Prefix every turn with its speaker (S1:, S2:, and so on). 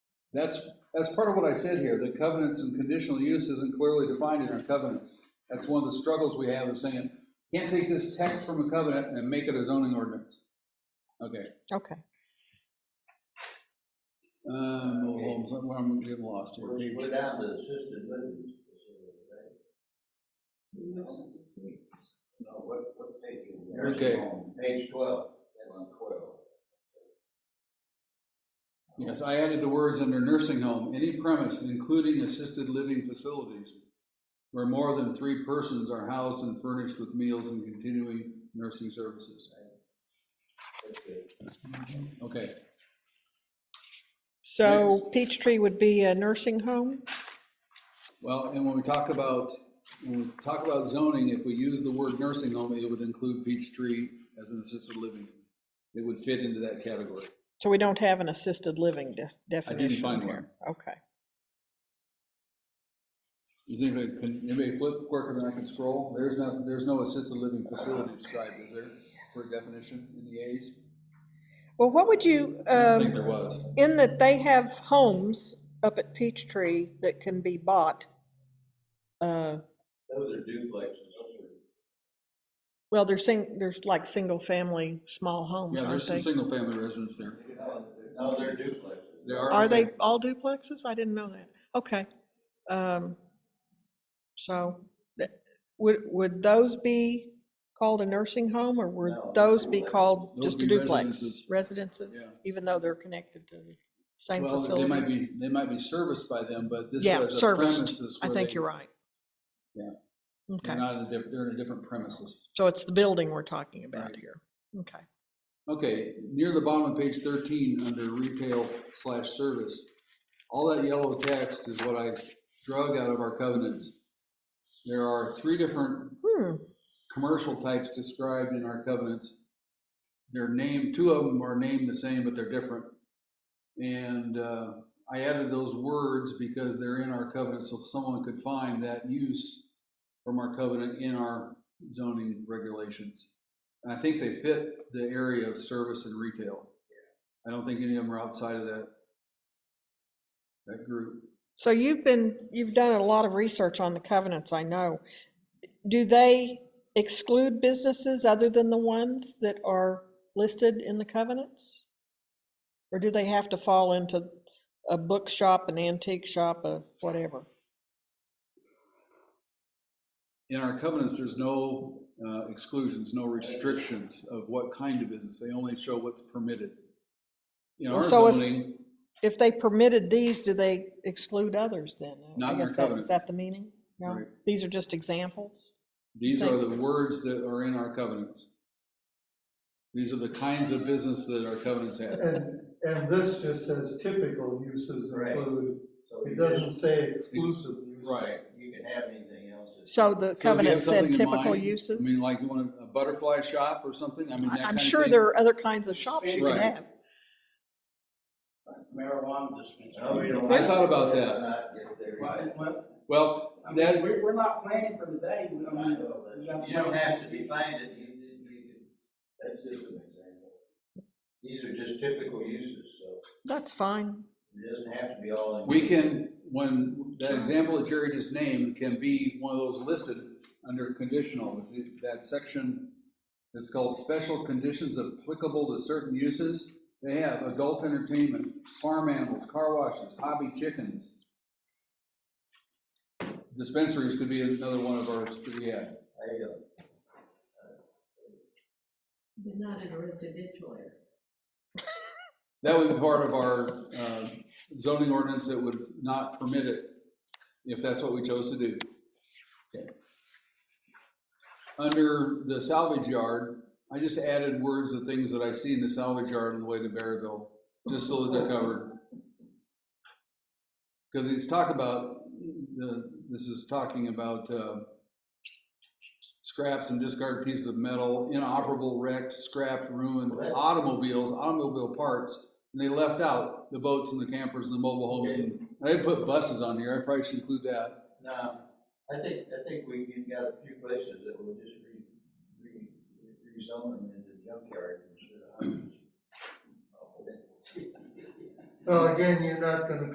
S1: That's, that's part of what I said here, the covenants and conditional use isn't clearly defined in our covenants. That's one of the struggles we have is saying, can't take this text from a covenant and make it a zoning ordinance. Okay,
S2: Okay.
S1: um, well, hold on, well, I'm getting lost here.
S3: We're we're down to assisted living. facility, right? No, what, what page? are we on?
S1: Okay.
S3: Page twelve, and on twelve.
S1: Yes, I added the words under nursing home, any premise, including assisted living facilities, where more than three persons are housed and furnished with meals and continuing nursing services. Okay,
S2: So Peachtree would be a nursing home?
S1: well, and when we talk about, when we talk about zoning, if we use the word nursing home, it would include Peachtree as an assisted living. It would fit into that category.
S2: So we don't have an assisted living de-
S1: I
S2: definition
S1: didn't
S2: here?
S1: find one.
S2: Okay.
S1: Is anybody, can anybody flip quicker than I can scroll? There's not, there's no assisted living facility described, is there, for definition in the A's?
S2: Well, what would you,
S1: I think
S2: um,
S1: there was.
S2: in that they have homes up at Peachtree that can be bought. uh,
S3: Those are duplexes, those are.
S2: Well, they're sing, there's like single-family, small homes,
S1: Yeah, there's
S2: aren't
S1: some
S2: they?
S1: single-family residents there.
S3: No, they're duplexes.
S1: They
S2: Are they
S1: okay.
S2: all duplexes? I didn't know that. Okay. Um, So that- would, would those be called a nursing home or would
S3: No,
S2: those be
S3: duplex.
S2: called
S1: Those
S2: just a
S1: be
S2: duplex?
S1: residences.
S2: Residences,
S1: Yeah.
S2: even though they're connected to the same
S1: Well, they might
S2: facility?
S1: be, they might be serviced by them, but this
S2: Yeah,
S1: is a
S2: serviced.
S1: premises
S2: I
S1: where
S2: think
S1: they-
S2: you're right.
S1: Yeah. They're
S2: Okay.
S1: not in a different, they're in a different premises.
S2: So it's the building we're talking about
S1: Right.
S2: here. Okay.
S1: Okay, near the bottom of page thirteen, under retail slash service, all that yellow text is what I drug out of our covenants. There are three different
S2: Hmm,
S1: commercial types described in our covenants. They're named, two of them are named the same, but they're different. And uh, I added those words because they're in our covenant, so someone could find that use from our covenant in our zoning regulations. And I think they fit the area of service and retail. I don't think any of them are outside of that, that group.
S2: So you've been, you've done a lot of research on the covenants, I know. Do they exclude businesses other than the ones that are listed in the covenants? Or do they have to fall into a bookshop, an antique shop, a whatever?
S1: In our covenants, there's no uh, exclusions, no restrictions of what kind of business. They only show what's permitted. In our
S2: Well, so if-
S1: zoning,
S2: If they permitted these, do they exclude others then? I
S1: Not in our
S2: guess that- Is
S1: covenants.
S2: that the meaning? No,
S1: Right.
S2: these are just examples?
S1: these are the words that are in our covenants. These are the kinds of business that our covenants have.
S4: And, and this just says typical uses
S3: Right.
S4: include,
S3: So you
S4: it
S3: just-
S4: doesn't say exclusive use.
S1: Right.
S3: You can have anything else. that-
S2: So
S1: So
S2: the
S1: do you have
S2: covenant said
S1: something in
S2: typical
S1: mind?
S2: uses?
S1: I mean, like you want a butterfly shop or something? I mean, that
S2: I-
S1: kind
S2: I'm
S1: of
S2: sure
S1: thing.
S2: there are other kinds of shops you could
S1: Right.
S2: have.
S5: marijuana dispensary.
S3: No, we don't
S1: I thought about
S3: Let's
S1: that.
S3: not get there.
S5: Why- what-
S1: Well,
S5: I
S1: that,
S5: mean, we're, we're not planning for today, we don't need
S3: You don't have to define it, you, you, you- that's just an example. These are just typical uses, so
S2: That's fine.
S3: it doesn't have to be all in.
S1: We can, when, that example that Jerry just named can be one of those listed under conditional, that section that's called special conditions applicable to certain uses. They have adult entertainment, farm animals, car washes, hobby chickens. Dispensaries could be another one of ours, that we have.
S3: There you go.
S6: But not in a residential area.
S1: That would be part of our uh, zoning ordinance that would not permit it, if that's what we chose to do. Okay. Under the salvage yard, I just added words of things that I see in the salvage yard on the way to Berryville, just so that they're covered. Because he's talking about, the, this is talking about uh, scraps and discarded pieces of metal, inoperable, wrecked, scrapped, ruined
S3: Correct.
S1: automobiles, automobile parts, and they left out the boats and the campers and the mobile homes. and I didn't put buses on here, I probably should include that.
S3: Now, I think, I think we, you've got a few places that will just re, re, rezone them into junkyard instead of houses.
S4: Well, again, you're not gonna